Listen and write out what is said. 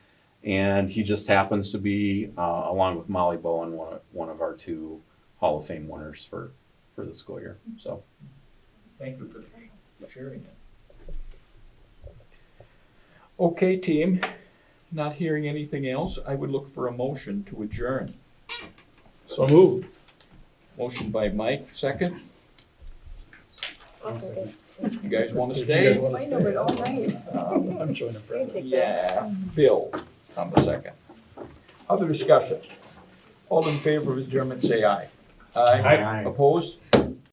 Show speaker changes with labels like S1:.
S1: And he just happens to be, uh, along with Molly Bowen, one of, one of our two Hall of Fame winners for, for the school year. So
S2: Thank you for sharing it. Okay, team, not hearing anything else, I would look for a motion to adjourn.
S3: So moved.
S2: Motion by Mike, second.
S4: I'll second.
S2: You guys want to
S3: You guys
S2: stay?
S3: wanna
S4: I know, but all night.
S2: Um,
S3: I'm joining
S4: They
S3: Brenda.
S4: take that.
S2: Yeah, Bill on the second. Other discussion? All in favor of adjournment, say aye. Aye.
S3: Aye.
S2: Opposed?